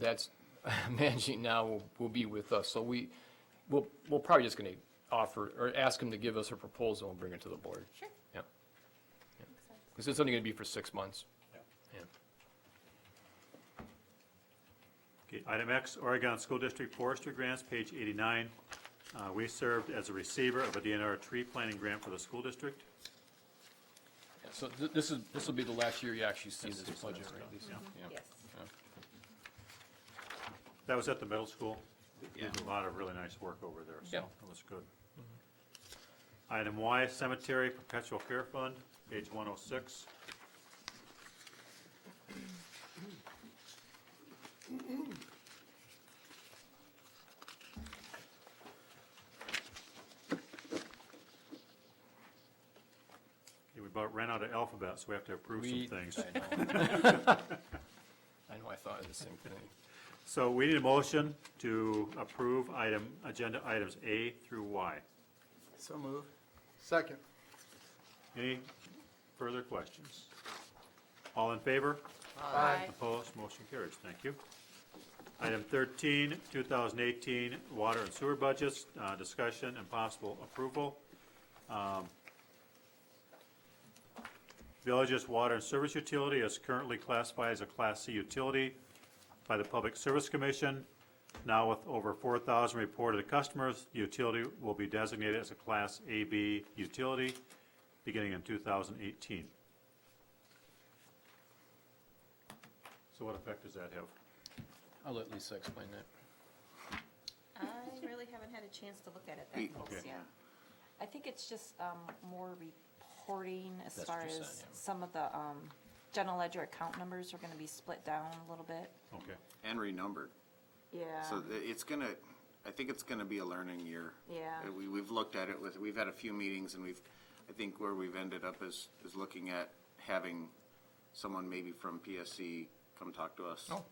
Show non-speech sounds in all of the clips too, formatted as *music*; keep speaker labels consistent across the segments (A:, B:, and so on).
A: that's *laughs* managing now will, will be with us. So we, we'll, we're probably just gonna offer, or ask him to give us a proposal and bring it to the board.
B: Sure.
A: Yeah. Because it's only gonna be for six months. Yeah.
C: Okay, item X, Oregon School District Forestry Grants, page 89. Uh, We served as a receiver of a DNR tree planting grant for the school district.
A: Yeah, So th- this is, this will be the last year you actually see this budget, right? Lisa? Yeah.
B: Yes.
C: That was at the middle school. They Did a lot of really nice work over there, so
A: Yeah.
C: it was good. Item Y, Cemetery Perpetual Care Fund, page 106. Okay, we about ran out of alphabet, so we have to approve some
A: We- *laughs*
C: things.
A: I know, I know, I thought of the same thing.
C: So we need a motion to approve item, agenda items A through Y.
D: So move. Second.
C: Any further questions? All in favor?
B: Aye.
C: Opposed? Motion carries. Thank you. Item 13, 2018 Water and Sewer Budgets, uh, discussion and possible approval. Um, Village's water and service utility is currently classified as a Class C utility by the Public Service Commission. Now with over 4,000 reported customers, the utility will be designated as a Class AB utility beginning in 2018. So what effect does that have?
A: I'll let Lisa explain that.
B: I really haven't had a chance to look at it that close
C: Okay.
B: yet. I think it's just um, more reporting as
A: That's
B: far
A: what you
B: as
A: said, yeah.
B: some of the um, general ledger account numbers are going to be split down a little bit.
C: Okay.
E: And renumbered.
B: Yeah.
E: So th- it's gonna, I think it's gonna be a learning year.
B: Yeah.
E: Uh, We, we've looked at it with, we've had a few meetings and we've, I think where we've ended up is, is looking at having someone maybe from PSC come talk to us.
A: Oh.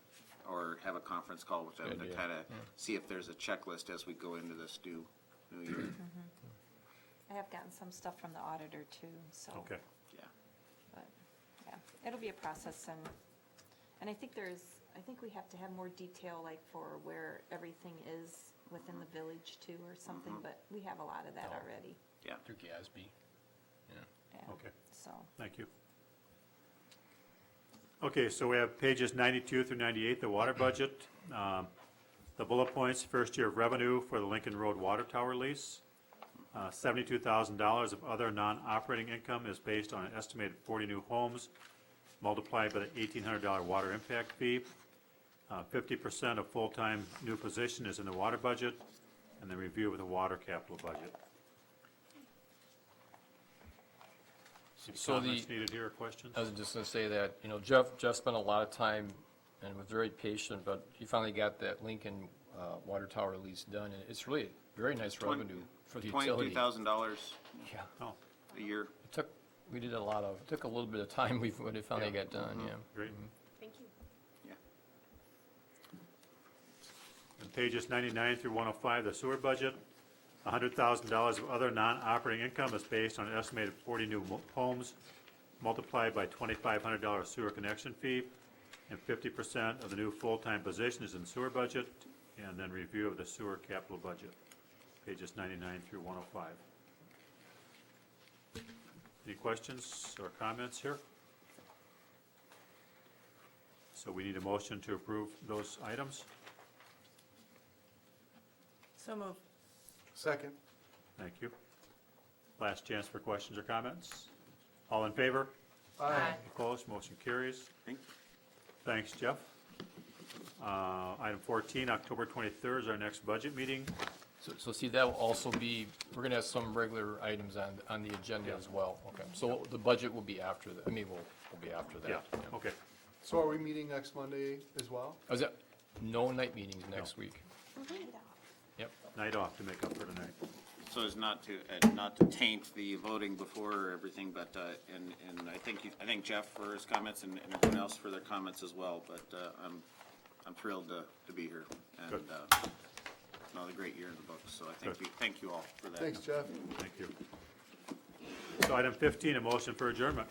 E: Or have a conference call with them
A: Good
E: to
A: idea.
E: kind of see if there's a checklist as we go into this new, new year.
B: Mm-hmm. I have gotten some stuff from the auditor too, so.
C: Okay.
E: Yeah.
B: But, yeah, it'll be a process and, and I think there's, I think we have to have more detail like for where everything is within the village too or something, but we have a lot of that
A: Oh.
B: already.
E: Yeah.
A: Through GASB. Yeah.
B: yeah,
C: Okay.
B: So,
C: Thank you. Okay, so we have pages 92 through 98, the water budget. Um, The bullet points, first year of revenue for the Lincoln Road Water Tower lease. Uh, $72,000 of other non-operating income is based on an estimated 40 new homes multiplied by the $1,800 water impact fee. Uh, 50% of full-time new position is in the water budget, and the review of the water capital budget. Any
A: So the-
C: comments needed here or questions?
A: I was just gonna say that, you know, Jeff, Jeff spent a lot of time and was very patient, but he finally got that Lincoln uh, Water Tower lease done, and it's really very nice revenue for the utility.
E: Twenty-two thousand dollars
A: Yeah,
C: Oh,
E: a year.
A: it took, we did a lot of, it took a little bit of time, *laughs* we, when it finally got done, yeah.
C: great.
B: thank you.
E: Yeah.
C: And pages 99 through 105, the sewer budget, $100,000 of other non-operating income is based on an estimated 40 new mo- homes multiplied by $2,500 sewer connection fee, and 50% of the new full-time position is in sewer budget, and then review of the sewer capital budget, pages 99 through 105. Any questions or comments here? So we need a motion to approve those items.
B: So move.
D: Second.
C: Thank you. Last chance for questions or comments. All in favor?
D: Aye.
C: Opposed? Motion carries.
E: Thank-
C: Thanks, Jeff. Uh, Item 14, October 23rd is our next budget meeting.
A: So, so see, that will also be, we're gonna have some regular items on, on the agenda as well, okay? So the budget will be after, the- I mean, will, will be after that.
C: Yeah, okay.
D: So are we meeting next Monday as well?
A: Is that, no night meetings next week? Yep,
C: Night off to make up for tonight.
E: So as not to, uh, not to taint the voting before or everything, but, uh, and, and I thank you, I thank Jeff for his comments and and everyone else for their comments as well, but, uh, I'm, I'm thrilled to, to be here. And,
C: Good.
E: uh, another great year in the books, so I thank
C: Good.
E: you, thank you all for that.
D: Thanks, Jeff.
C: Thank you. So item 15, a motion for adjournment.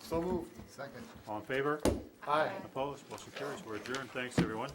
D: So move. Second.
C: All in favor?
D: Aye.
C: Opposed? Motion carries. We're adjourned. Thanks, everyone.